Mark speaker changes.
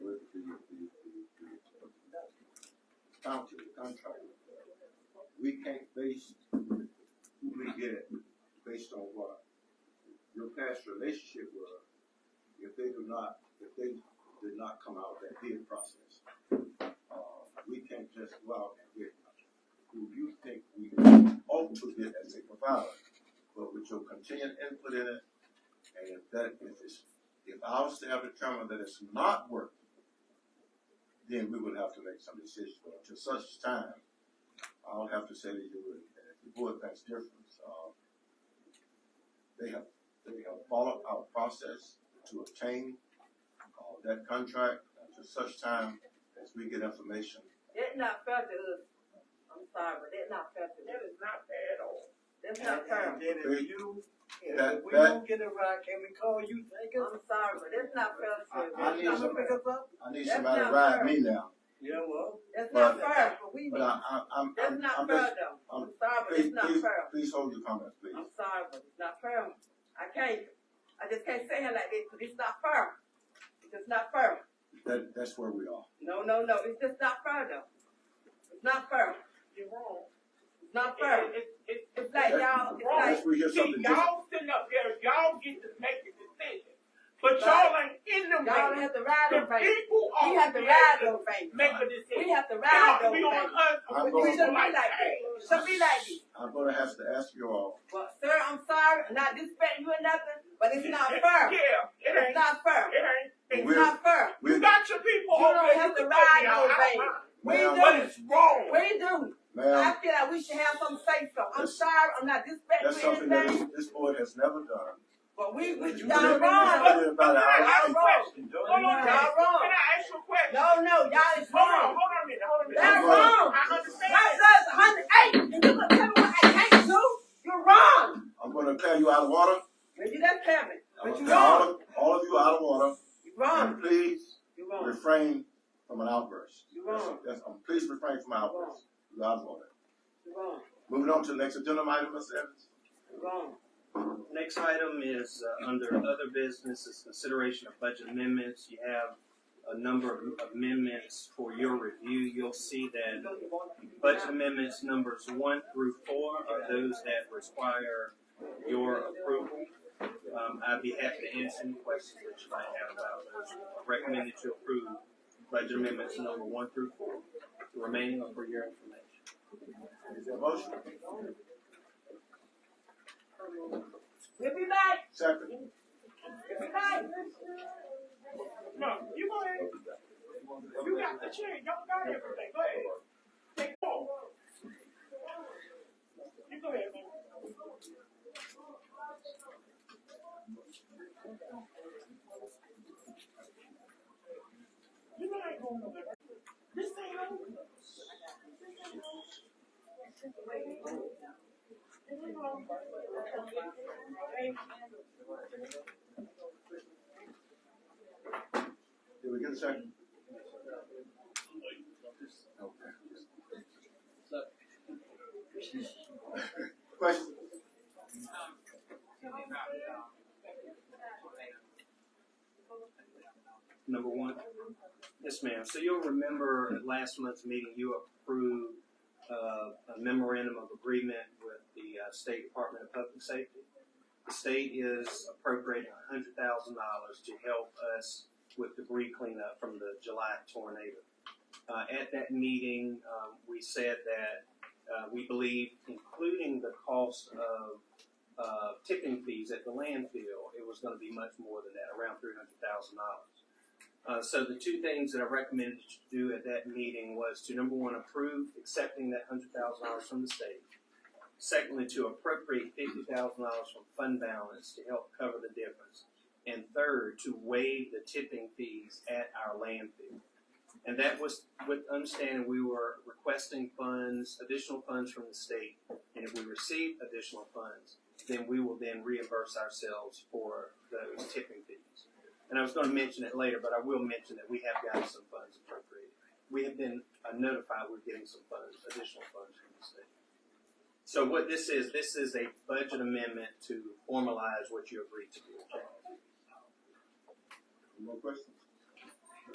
Speaker 1: county, contract. We can't base who we get based on what your past relationship was if they do not, if they did not come out of that bid process. Uh, we can't just go out and get who you think we ought to get as a provider. But with your continued input in it, and if that, if it's, if our staff determine that it's not working, then we would have to make some decisions. But until such time, I'll have to say to you, and if the board thinks different, uh, they have, they have followed our process to obtain, uh, that contract until such time as we get information.
Speaker 2: That's not fair to us. I'm sorry, but that's not fair to
Speaker 3: That
Speaker 2: us.
Speaker 3: is not fair at all.
Speaker 2: That's not fair.
Speaker 3: And then if you,
Speaker 1: That-
Speaker 3: if we
Speaker 1: that-
Speaker 3: don't get it right, can we call you, take us?
Speaker 2: I'm sorry, but that's not fair to
Speaker 1: I- I
Speaker 2: us.
Speaker 1: need
Speaker 3: Y'all
Speaker 1: some-
Speaker 3: pick us up?
Speaker 1: I need
Speaker 2: That's
Speaker 1: somebody to
Speaker 2: not
Speaker 1: ride
Speaker 2: fair.
Speaker 1: me now,
Speaker 3: Yeah, well,
Speaker 2: That's
Speaker 1: But-
Speaker 2: not fair, but we,
Speaker 1: but I, I, I'm,
Speaker 2: that's
Speaker 1: I'm,
Speaker 2: not
Speaker 1: I'm
Speaker 2: fair
Speaker 1: just,
Speaker 2: though.
Speaker 1: I'm-
Speaker 2: I'm sorry, but
Speaker 1: please,
Speaker 2: it's not
Speaker 1: please,
Speaker 2: fair.
Speaker 1: please hold your comments, please.
Speaker 2: I'm sorry, but it's not fair. I can't, I just can't say it like this, cause it's not fair. It's just not fair.
Speaker 1: That, that's where we are.
Speaker 2: No, no, no, it's just not fair though. It's not fair.
Speaker 3: you're wrong.
Speaker 2: It's not fair.
Speaker 4: It, it, it,
Speaker 2: It's like y'all, it's like,
Speaker 1: Unless we hear
Speaker 4: it, see,
Speaker 1: something different,
Speaker 4: y'all sitting up there, y'all get to make the decision, but
Speaker 2: Right.
Speaker 4: y'all ain't in the
Speaker 2: y'all
Speaker 4: race.
Speaker 2: have to ride
Speaker 4: The
Speaker 2: on things.
Speaker 4: people
Speaker 2: We
Speaker 4: are
Speaker 2: have to ride
Speaker 4: there to
Speaker 2: on things.
Speaker 4: make a
Speaker 2: We
Speaker 4: decision.
Speaker 2: have to
Speaker 4: It
Speaker 2: ride
Speaker 4: ought to
Speaker 2: on
Speaker 4: be on
Speaker 2: things.
Speaker 4: us.
Speaker 1: I'm
Speaker 4: We
Speaker 2: We
Speaker 1: going,
Speaker 2: shouldn't be like
Speaker 4: like,
Speaker 2: that.
Speaker 4: hey,
Speaker 2: Shouldn't be like this.
Speaker 1: I'm gonna have to ask you all,
Speaker 2: Well, sir, I'm sorry, I'm not disrespecting you or nothing, but it's not fair.
Speaker 4: Yeah, it
Speaker 2: It's
Speaker 4: ain't,
Speaker 2: not fair.
Speaker 4: it ain't.
Speaker 2: It's
Speaker 1: We're-
Speaker 2: not fair.
Speaker 4: You
Speaker 1: we,
Speaker 4: got your people
Speaker 2: You
Speaker 4: over
Speaker 2: don't
Speaker 4: there.
Speaker 2: have to
Speaker 4: can
Speaker 2: ride
Speaker 4: help me out.
Speaker 2: those
Speaker 4: I don't
Speaker 2: things.
Speaker 4: mind.
Speaker 2: We
Speaker 1: ma'am,
Speaker 2: do.
Speaker 4: But it's wrong.
Speaker 2: We do. I
Speaker 1: ma'am,
Speaker 2: feel like we should have some say so. I'm sorry, I'm not
Speaker 1: that's
Speaker 2: disrespecting
Speaker 1: something
Speaker 2: you or
Speaker 1: that this,
Speaker 2: anything,
Speaker 1: this board has never done.
Speaker 2: but we, we,
Speaker 1: You
Speaker 2: y'all
Speaker 1: did-
Speaker 2: wrong.
Speaker 1: you did about an hour
Speaker 4: I have a
Speaker 1: ago.
Speaker 4: question. Hold on,
Speaker 2: Y'all
Speaker 4: now.
Speaker 2: wrong.
Speaker 4: Can I ask you a question?
Speaker 2: No, no, y'all is
Speaker 4: Hold on,
Speaker 2: wrong.
Speaker 4: hold on a minute, hold on a minute.
Speaker 2: That's wrong.
Speaker 4: I understand.
Speaker 2: My son's hundred eight, and you gonna tell me what I can't do? You're wrong.
Speaker 1: I'm gonna clear you out of water,
Speaker 2: But you just tell me.
Speaker 1: I'm
Speaker 2: But
Speaker 1: gonna
Speaker 2: you're
Speaker 1: clear all
Speaker 2: wrong.
Speaker 1: of, all of you out of water,
Speaker 2: You're wrong.
Speaker 1: and please
Speaker 2: You're wrong.
Speaker 1: refrain from an outburst.
Speaker 2: You're wrong.
Speaker 1: That's, um, please refrain from outbursts, you out of order.
Speaker 2: You're wrong.
Speaker 1: Moving on to the next agenda item, Ms. Evans.
Speaker 2: You're wrong.
Speaker 5: Next item is uh, under other business is consideration of budget amendments. You have a number of amendments for your review. You'll see that budget amendments numbers one through four are those that require your approval. Um, I'd be happy to answer any questions that you might have about those. I recommend that you approve budget amendments number one through four. The remaining are for your information.
Speaker 1: Is there a motion?
Speaker 2: We'll be back.
Speaker 1: Second.
Speaker 2: We'll be back.
Speaker 4: No, you go ahead. You got the chair. Y'all got everything. Go ahead. Take four. You go ahead, man. You know I ain't going nowhere. This ain't over.
Speaker 1: Did we get a second? Question?
Speaker 5: Number one? Yes, ma'am. So you'll remember at last month's meeting, you approved uh, a memorandum of agreement with the uh, State Department of Public Safety. The state is appropriating hundred thousand dollars to help us with debris cleanup from the July tornado. Uh, At that meeting, um, we said that uh, we believe, including the cost of uh, tipping fees at the landfill, it was going to be much more than that, around three hundred thousand dollars. Uh, so the two things that I recommended that you do at that meeting was to number one, approve accepting that hundred thousand dollars from the state. Secondly, to appropriate fifty thousand dollars from fund balance to help cover the difference. And third, to waive the tipping fees at our landfill. And that was with understanding we were requesting funds, additional funds from the state. And if we receive additional funds, then we will then reimburse ourselves for those tipping fees. And I was going to mention it later, but I will mention that we have gotten some funds appropriated. We have been uh, notified we're getting some funds, additional funds from the state. So what this is, this is a budget amendment to formalize what you agreed to do.
Speaker 1: More questions?